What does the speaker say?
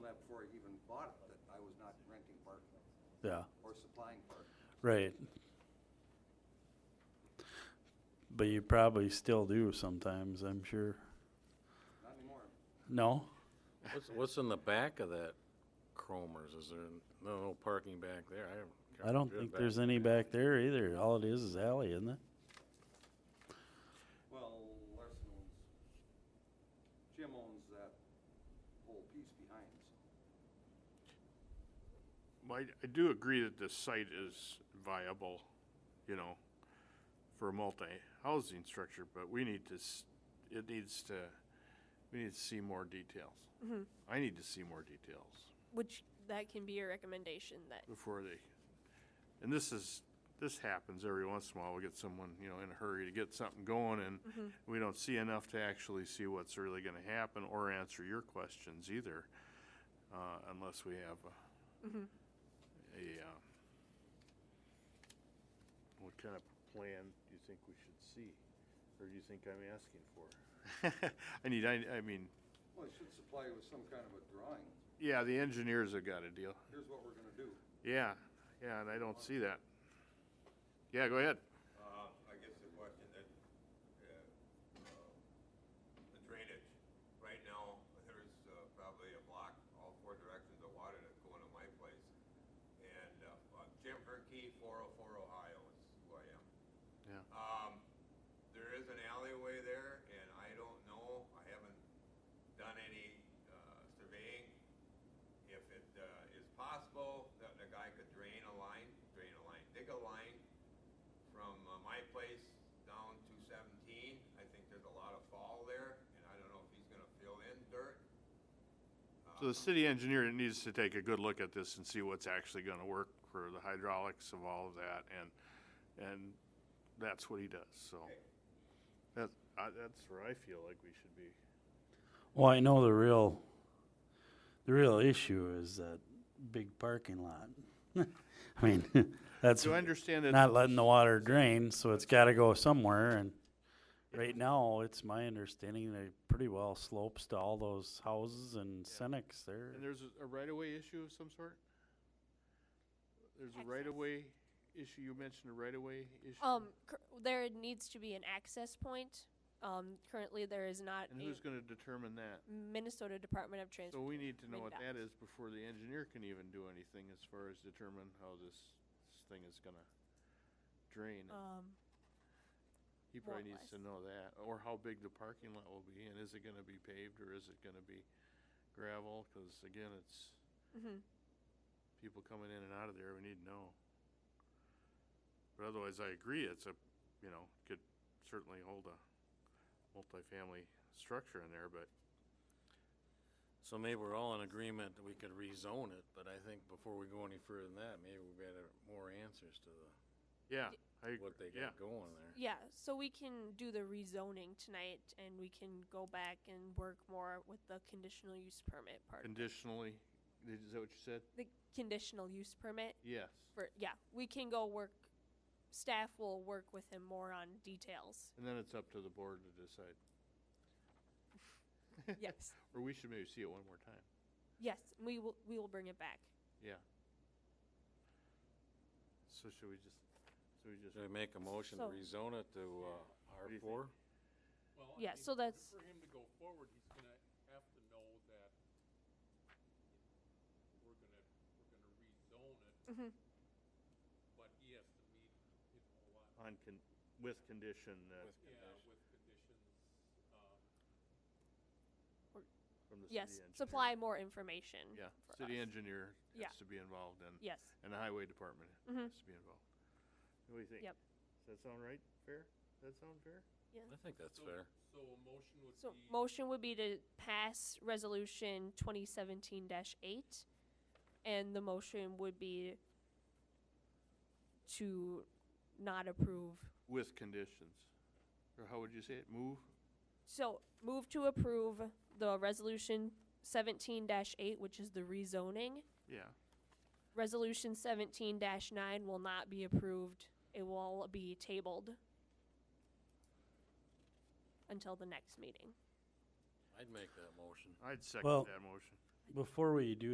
even bought it, that I was not renting parking Yeah, or supplying parking. right. But you probably still do sometimes, I'm sure. Not anymore. No? What's, what's in the back of that Cromer's? Is there no, no parking back there? I haven't. I don't think there's any back there either. All it is is alley, isn't it? Well, Larson owns, Jim owns that whole piece behind, so. Well, I, I do agree that this site is viable, you know, for a multi-housing structure, but we need to, s- it needs to, we need to see more details. I need to see more details Which that can be a recommendation that before they, and this is, this happens every once in a while, we get someone, you know, in a hurry to get something going and we don't see enough to actually see what's really gonna happen or answer your questions either, uh, unless we have a, a, um, what kind of plan do you think we should see? Or do you think I'm asking for? I need, I, I mean, Well, it should supply you with some kind of a drawing. yeah, the engineers have got a deal. Here's what we're gonna do. Yeah, yeah, and I don't see that. Yeah, go ahead. Uh, I guess the question that, uh, uh, the drainage, right now, there's uh, probably a block, all four directions of water that's going to my place. And uh, uh, Jim Herkey, four oh four Ohio is who I am. Yeah. Um, there is an alleyway there, and I don't know, I haven't done any uh, surveying. If it uh, is possible, that the guy could drain a line, drain a line, dig a line from uh, my place down to seventeen. I think there's a lot of fall there, and I don't know if he's gonna fill in dirt. So the city engineer needs to take a good look at this and see what's actually gonna work for the hydraulics of all of that, and, and that's what he does, so. That, I, that's where I feel like we should be. Well, I know the real, the real issue is that big parking lot. I mean, that's Do I understand that? not letting the water drain, so it's gotta go somewhere and right now, it's my understanding that it pretty well slopes to all those houses and Senex there. And there's a- a right-of-way issue of some sort? There's a right-of-way issue, you mentioned a right-of-way issue? um cur- there needs to be an access point. Um, currently there is not And a who's gonna determine that? Minnesota Department of Transportation. So we need to know what that MnDOT. is before the engineer can even do anything as far as determine how this this thing is gonna drain. Um, He what probably needs to know that, or how big the parking lot will be, and is it gonna be paved, or is it gonna be gravel? Cause again, it's mhm. people coming in and out of there, we need to know. But otherwise, I agree, it's a, you know, could certainly hold a multifamily structure in there, but So maybe we're all in agreement that we could rezone it, but I think before we go any further than that, maybe we better more answers to the, yeah, I, what they yeah. got going there. Yeah, so we can do the rezoning tonight and we can go back and work more with the conditional use permit part. Conditionally, is that what you said? The conditional use permit Yes. for, yeah, we can go work, staff will work with him more on details. And then it's up to the board to decide. Yes, Or we should maybe see it one more time. yes, we will, we will bring it back. Yeah. So should we just, so we just, Should we make a motion to So- rezone it to, uh, R do you think? four? Well, I Yeah, mean, so that's- For him to go forward, he's gonna have to know that we're gonna, we're gonna rezone Mhm. it. But he has to meet, you know, a lot, on con, with condition that yeah, with conditions, um, from the city Yes, engineer. supply more information. Yeah, for city us. engineer Yeah. has to be involved and, Yes, and the highway department Mhm. has to be involved. What do you think? Yep. Does that sound right? Fair? Does that sound fair? I think that's so, fair. so a motion would so be, motion would be to pass resolution twenty seventeen dash eight. And the motion would be to not approve. With conditions. Or how would you say it? Move? So move to approve the resolution seventeen dash eight, which is the rezoning. Yeah. Resolution seventeen dash nine will not be approved. It will be tabled until the next meeting. I'd make that motion. I'd second Well- that motion. Before we do